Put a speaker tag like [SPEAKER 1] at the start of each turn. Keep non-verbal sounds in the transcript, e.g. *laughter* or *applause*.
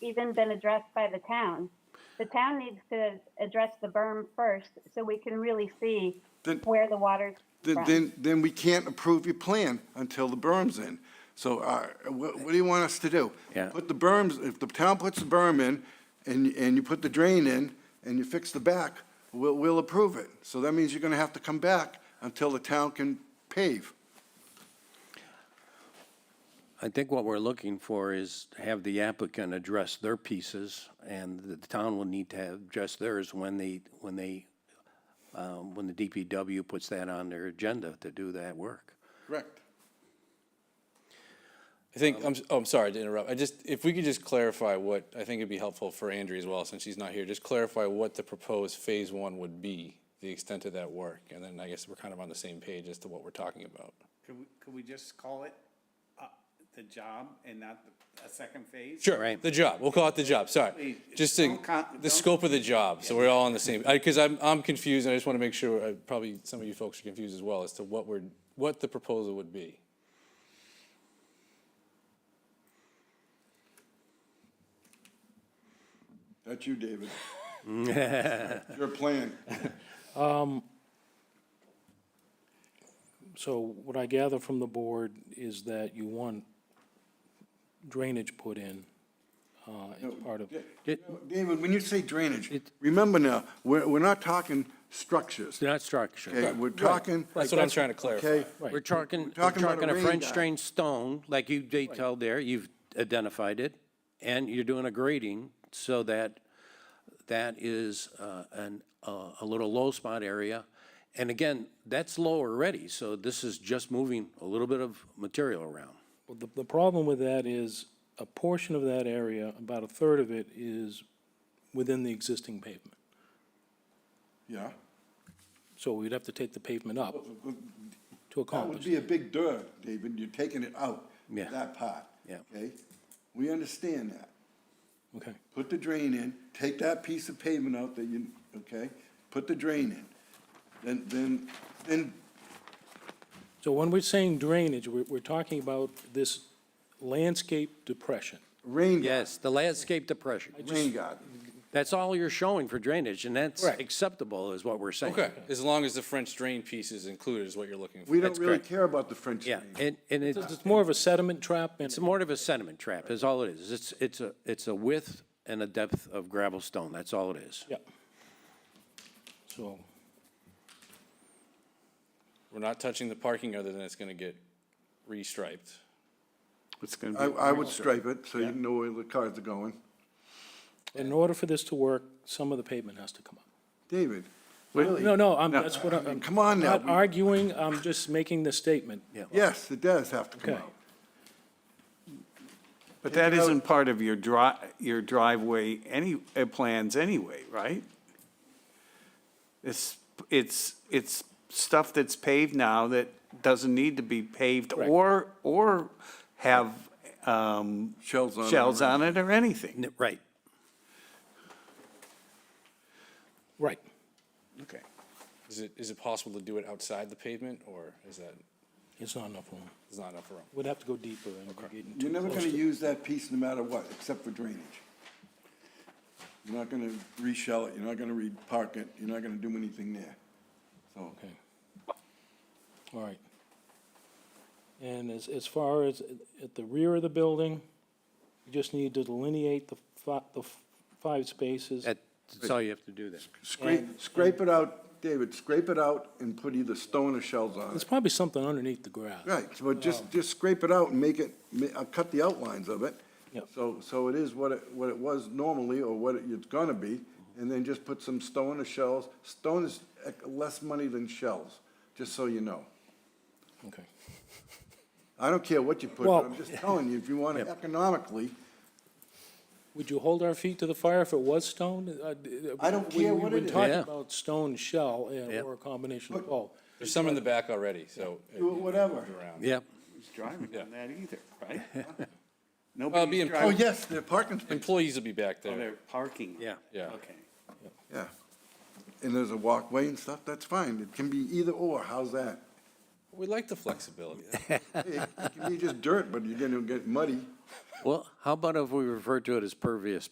[SPEAKER 1] even been addressed by the town. The town needs to address the berm first so we can really see
[SPEAKER 2] Then-
[SPEAKER 1] where the water's
[SPEAKER 2] Then,
[SPEAKER 1] from.
[SPEAKER 2] then, then we can't approve your plan until the berm's in. So, uh, what, what do you want us to do?
[SPEAKER 3] Yeah.
[SPEAKER 2] Put the berms, if the town puts the berm in, and, and you put the drain in, and you fix the back, we'll, we'll approve it. So that means you're gonna have to come back until the town can pave.
[SPEAKER 3] I think what we're looking for is have the applicant address their pieces, and the town will need to have- address theirs when they, when they, um, when the DPW puts that on their agenda to do that work.
[SPEAKER 2] Correct.
[SPEAKER 4] I think, I'm, s- oh, I'm sorry to interrupt. I just, if we could just clarify what, I think it'd be helpful for Andrea as well, since she's not here, just clarify what the proposed phase one would be, the extent of that work, and then I guess we're kind of on the same page as to what we're talking about.
[SPEAKER 5] Could we, could we just call it, uh, the job and not the, a second phase?
[SPEAKER 4] Sure,
[SPEAKER 3] Right.
[SPEAKER 4] the job, we'll call it the job, sorry.
[SPEAKER 5] Please,
[SPEAKER 4] Just to,
[SPEAKER 5] don't con-
[SPEAKER 4] the
[SPEAKER 5] don't-
[SPEAKER 4] scope of the job, so we're all on the same, I, cause I'm, I'm confused, and I just wanna make sure, uh, probably some of you folks are confused as well, as to what we're, what the proposal would be.
[SPEAKER 2] That's you,
[SPEAKER 4] *laughs*
[SPEAKER 2] David. Your plan.
[SPEAKER 6] So what I gather from the board is that you want drainage put in, uh, as part of,
[SPEAKER 2] David, when you say drainage, remember now, we're, we're not talking structures,
[SPEAKER 3] It's not structure.
[SPEAKER 2] okay? We're talking,
[SPEAKER 4] That's what I'm trying to
[SPEAKER 2] okay?
[SPEAKER 4] clarify.
[SPEAKER 3] We're talking, we're
[SPEAKER 2] talking about a
[SPEAKER 3] talking a
[SPEAKER 2] rain
[SPEAKER 3] French
[SPEAKER 2] guy.
[SPEAKER 3] drain stone, like you detailed there, you've identified it, and you're doing a grading so that that is uh, an, uh, a little low spot area. And again, that's low already, so this is just moving a little bit of material around.
[SPEAKER 6] Well, the, the problem with that is a portion of that area, about a third of it is within the existing pavement.
[SPEAKER 2] Yeah.
[SPEAKER 6] So we'd have to take the pavement up to
[SPEAKER 2] That would
[SPEAKER 6] accomplish.
[SPEAKER 2] be a big dirt, David, you're taking it out,
[SPEAKER 3] Yeah.
[SPEAKER 2] that part.
[SPEAKER 3] Yeah.
[SPEAKER 2] Okay? We understand that.
[SPEAKER 6] Okay,
[SPEAKER 2] Put the drain in, take that piece of pavement out that you, okay? Put the drain in. Then, then, then,
[SPEAKER 6] so when we're saying drainage, we're, we're talking about this landscape depression.
[SPEAKER 2] rain garden,
[SPEAKER 3] Yes, the landscape depression,
[SPEAKER 2] rain garden.
[SPEAKER 3] that's all you're showing for drainage, and that's
[SPEAKER 6] Correct.
[SPEAKER 3] acceptable, is what we're saying.
[SPEAKER 4] Okay, as long as the French drain piece is included is what you're looking for.
[SPEAKER 2] We don't
[SPEAKER 3] That's
[SPEAKER 2] really
[SPEAKER 3] correct.
[SPEAKER 2] care about the French
[SPEAKER 3] Yeah,
[SPEAKER 2] drain.
[SPEAKER 3] and, and it's.
[SPEAKER 6] It's more of a sediment trap and.
[SPEAKER 3] It's more of a sediment trap, is all it is. It's, it's a, it's a width and a depth of gravel stone, that's all it is.
[SPEAKER 6] Yeah. So,
[SPEAKER 4] We're not touching the parking other than it's gonna get restriped.
[SPEAKER 7] It's going
[SPEAKER 2] I,
[SPEAKER 7] to
[SPEAKER 2] I would stripe it so you know where the cars are going.
[SPEAKER 6] in order for this to work, some of the pavement has to come up.
[SPEAKER 2] David,
[SPEAKER 7] be,
[SPEAKER 6] No, no, I'm,
[SPEAKER 2] No,
[SPEAKER 6] that's what I'm.
[SPEAKER 2] I mean, come on now,
[SPEAKER 6] Not
[SPEAKER 2] we-
[SPEAKER 6] arguing, I'm just making the statement.
[SPEAKER 2] yes, it does have to come
[SPEAKER 6] Okay.
[SPEAKER 2] out.
[SPEAKER 7] but that isn't part of your dri, your driveway any, uh, plans anyway, right? It's, it's, it's stuff that's paved now that doesn't need to be paved or, or have, um,
[SPEAKER 2] Shells on it
[SPEAKER 7] Shells
[SPEAKER 2] or
[SPEAKER 7] on it or anything.
[SPEAKER 3] N- Right.
[SPEAKER 6] Right.
[SPEAKER 7] Okay.
[SPEAKER 4] Is it, is it possible to do it outside the pavement, or is that,
[SPEAKER 6] It's not enough room.
[SPEAKER 4] is not enough room?
[SPEAKER 6] We'd have to go deeper and we're getting
[SPEAKER 2] You're
[SPEAKER 6] too
[SPEAKER 2] never
[SPEAKER 6] close
[SPEAKER 2] gonna
[SPEAKER 6] to-
[SPEAKER 2] use that piece no matter what, except for drainage. You're not gonna re-shell it, you're not gonna re-park it, you're not gonna do anything there. So,
[SPEAKER 6] Okay. All right. And as, as far as at the rear of the building, you just need to delineate the fi- the f- five spaces.
[SPEAKER 3] That- That's all you have to do there.
[SPEAKER 2] scrape, scrape it out, David, scrape it out and put either stone or shells on
[SPEAKER 6] There's
[SPEAKER 2] it.
[SPEAKER 6] probably something underneath the grass.
[SPEAKER 2] Right, so just, just scrape it out and make it, ma- uh, cut the outlines of it.
[SPEAKER 6] Yep.
[SPEAKER 2] So, so it is what it, what it was normally, or what it's gonna be, and then just put some stone or shells. Stone is eh, less money than shells, just so you know.
[SPEAKER 6] Okay.
[SPEAKER 2] I don't care what you put,
[SPEAKER 6] Well-
[SPEAKER 2] but I'm just telling you, if you *laughs* want to economically,
[SPEAKER 6] Would you hold our feet to the fire if it was stone? Uh, d-
[SPEAKER 2] I don't
[SPEAKER 6] we-
[SPEAKER 2] care what
[SPEAKER 6] We've
[SPEAKER 2] it
[SPEAKER 6] been
[SPEAKER 2] is.
[SPEAKER 6] talking
[SPEAKER 3] Yeah.
[SPEAKER 6] about stone shell and-
[SPEAKER 3] Yeah.
[SPEAKER 6] or a combination of both.
[SPEAKER 4] There's some in the back already, so.
[SPEAKER 2] do it whatever.
[SPEAKER 4] Around.
[SPEAKER 3] Yep.
[SPEAKER 7] Who's driving
[SPEAKER 4] Yeah.
[SPEAKER 7] on that either, right?
[SPEAKER 4] be
[SPEAKER 7] Nobody's
[SPEAKER 4] imp-
[SPEAKER 2] Oh,
[SPEAKER 7] driving,
[SPEAKER 2] yes, the parking space,
[SPEAKER 4] Uh, Employees will be back
[SPEAKER 7] oh,
[SPEAKER 4] there.
[SPEAKER 7] they're parking.
[SPEAKER 3] Yeah.
[SPEAKER 4] Yeah.
[SPEAKER 7] Okay.
[SPEAKER 2] yeah. And there's a walkway and stuff, that's fine. It can be either or, how's that?
[SPEAKER 4] We like the flexibility.
[SPEAKER 2] It it can be just dirt, but you're gonna get muddy.
[SPEAKER 3] Well, how about if we refer to it as pervious